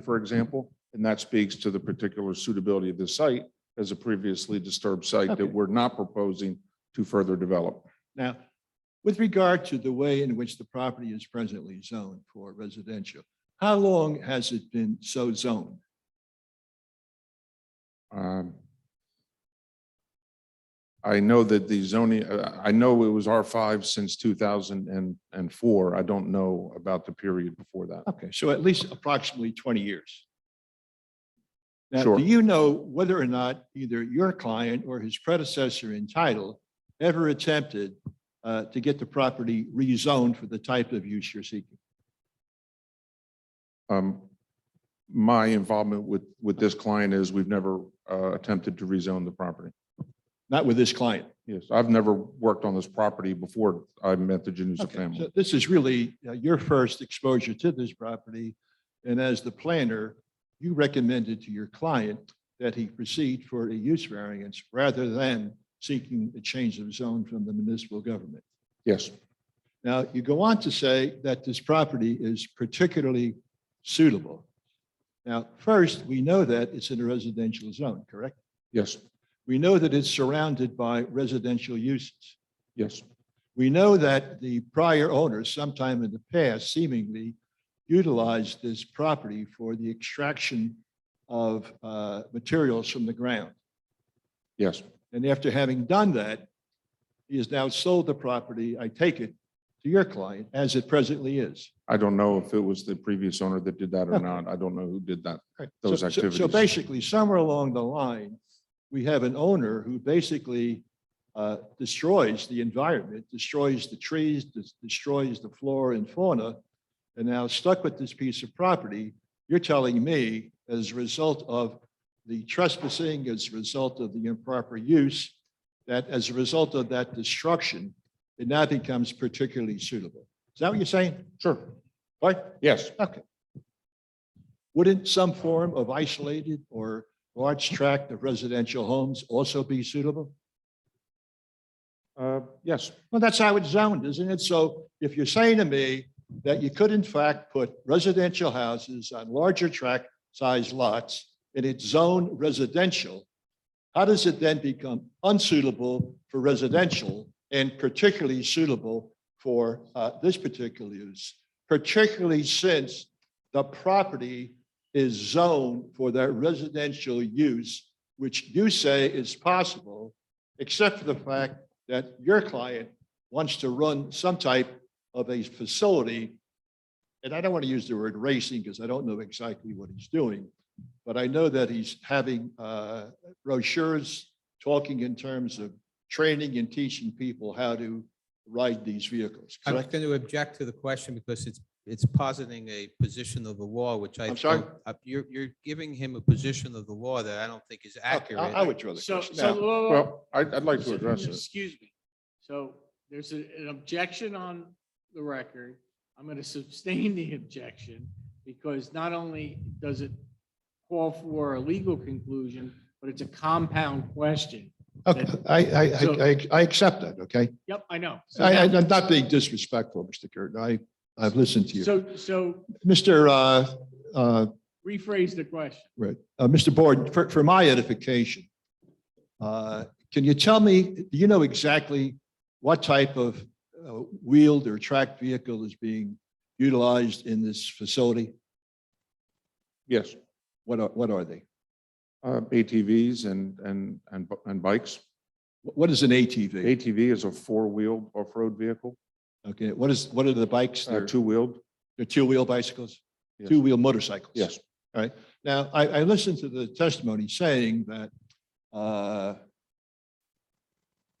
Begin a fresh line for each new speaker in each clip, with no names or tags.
for example, and that speaks to the particular suitability of the site as a previously disturbed site
Okay.
that we're not proposing to further develop.
Now, with regard to the way in which the property is presently zoned for residential, how long has it been so zoned?
Um, I know that the zoning, uh, I know it was R5 since 2004. I don't know about the period before that.
Okay, so at least approximately 20 years. Now,
Sure.
do you know whether or not either your client or his predecessor in title ever attempted uh, to get the property rezoned for the type of use you're seeking?
Um, My involvement with, with this client is we've never uh, attempted to rezone the property.
Not with this client.
Yes, I've never worked on this property before I met the Janusa
Okay,
family.
so This is really uh, your first exposure to this property. And as the planner, you recommended to your client that he proceed for a use variance rather than seeking a change of zone from the municipal government.
Yes,
Now, you go on to say that this property is particularly suitable. Now, first, we know that it's in a residential zone, correct?
yes,
We know that it's surrounded by residential uses.
yes,
We know that the prior owners sometime in the past seemingly utilized this property for the extraction of uh, materials from the ground.
yes,
And after having done that, he has now sold the property, I take it, to your client as it presently is.
I don't know if it was the previous owner that did that or
Okay.
not. I don't know who did that.
So-
Those
so- So
activities.
basically, somewhere along the line, we have an owner who basically uh, destroys the environment, destroys the trees, des- destroys the flora and fauna, and now stuck with this piece of property. You're telling me, as a result of the trespassing, as a result of the improper use, that as a result of that destruction, it now becomes particularly suitable. Is that what you're saying?
Sure.
Right?
Yes,
Okay. Wouldn't some form of isolated or large tract of residential homes also be suitable?
uh, yes,
Well, that's how it's zoned, isn't it? So if you're saying to me that you could in fact put residential houses on larger tract size lots and it's zoned residential, how does it then become unsuitable for residential and particularly suitable for uh, this particular use? Particularly since the property is zoned for that residential use, which you say is possible, except for the fact that your client wants to run some type of a facility. And I don't want to use the word racing because I don't know exactly what he's doing. But I know that he's having uh, brochures talking in terms of training and teaching people how to ride these vehicles.
I'm
correct?
going to object to the question because it's, it's positing a position of the law, which I.
I'm sorry?
don't- uh, You're, you're giving him a position of the law that I don't think is
Okay, I
accurate.
I withdraw the
So,
question.
so,
Now,
whoa, whoa, whoa.
well, I'd, I'd like to address it.
Excuse me. So there's a- an objection on the record. I'm going to sustain the objection because not only does it call for a legal conclusion, but it's a compound question.
okay, I, I,
So-
I- I, I accept that, okay?
Yep, I know. So
I, I-
that-
I'm not being disrespectful, Mr. Curtin. I, I've listened to you.
So, so
Mr. uh, uh,
rephrase the question.
Right. Uh, Mr. Board, for, for my edification, uh, can you tell me, do you know exactly what type of uh, wheeled or tracked vehicle is being utilized in this facility?
Yes,
What are, what are they?
uh, ATVs and, and, and bu- and bikes.
Wh- What is an ATV?
ATV is a four-wheeled off-road vehicle,
Okay, what is, what are the bikes?
uh,
They're
two-wheeled.
they're two-wheel bicycles?
Yes.
Two-wheel motorcycles?
Yes,
Now, I, I listened to the testimony saying that uh,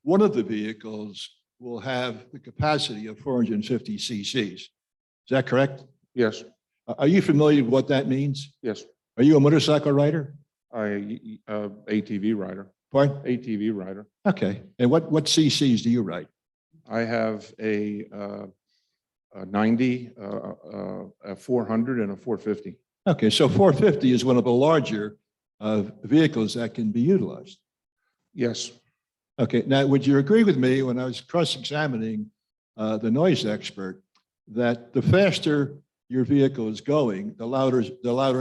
one of the vehicles will have the capacity of 450 cc's. Is that correct?
yes,
Are are you familiar with what that means?
yes.
Are you a motorcycle rider?
I, uh, ATV rider,
Pardon?
ATV rider.
Okay. And what, what cc's do you ride?
I have a, uh, a ninety, uh, uh, a four hundred and a four fifty.
Okay, so 450 is one of the larger uh, vehicles that can be utilized.
Yes,
Okay, now, would you agree with me when I was cross-examining uh, the noise expert, that the faster your vehicle is going, the louder, the louder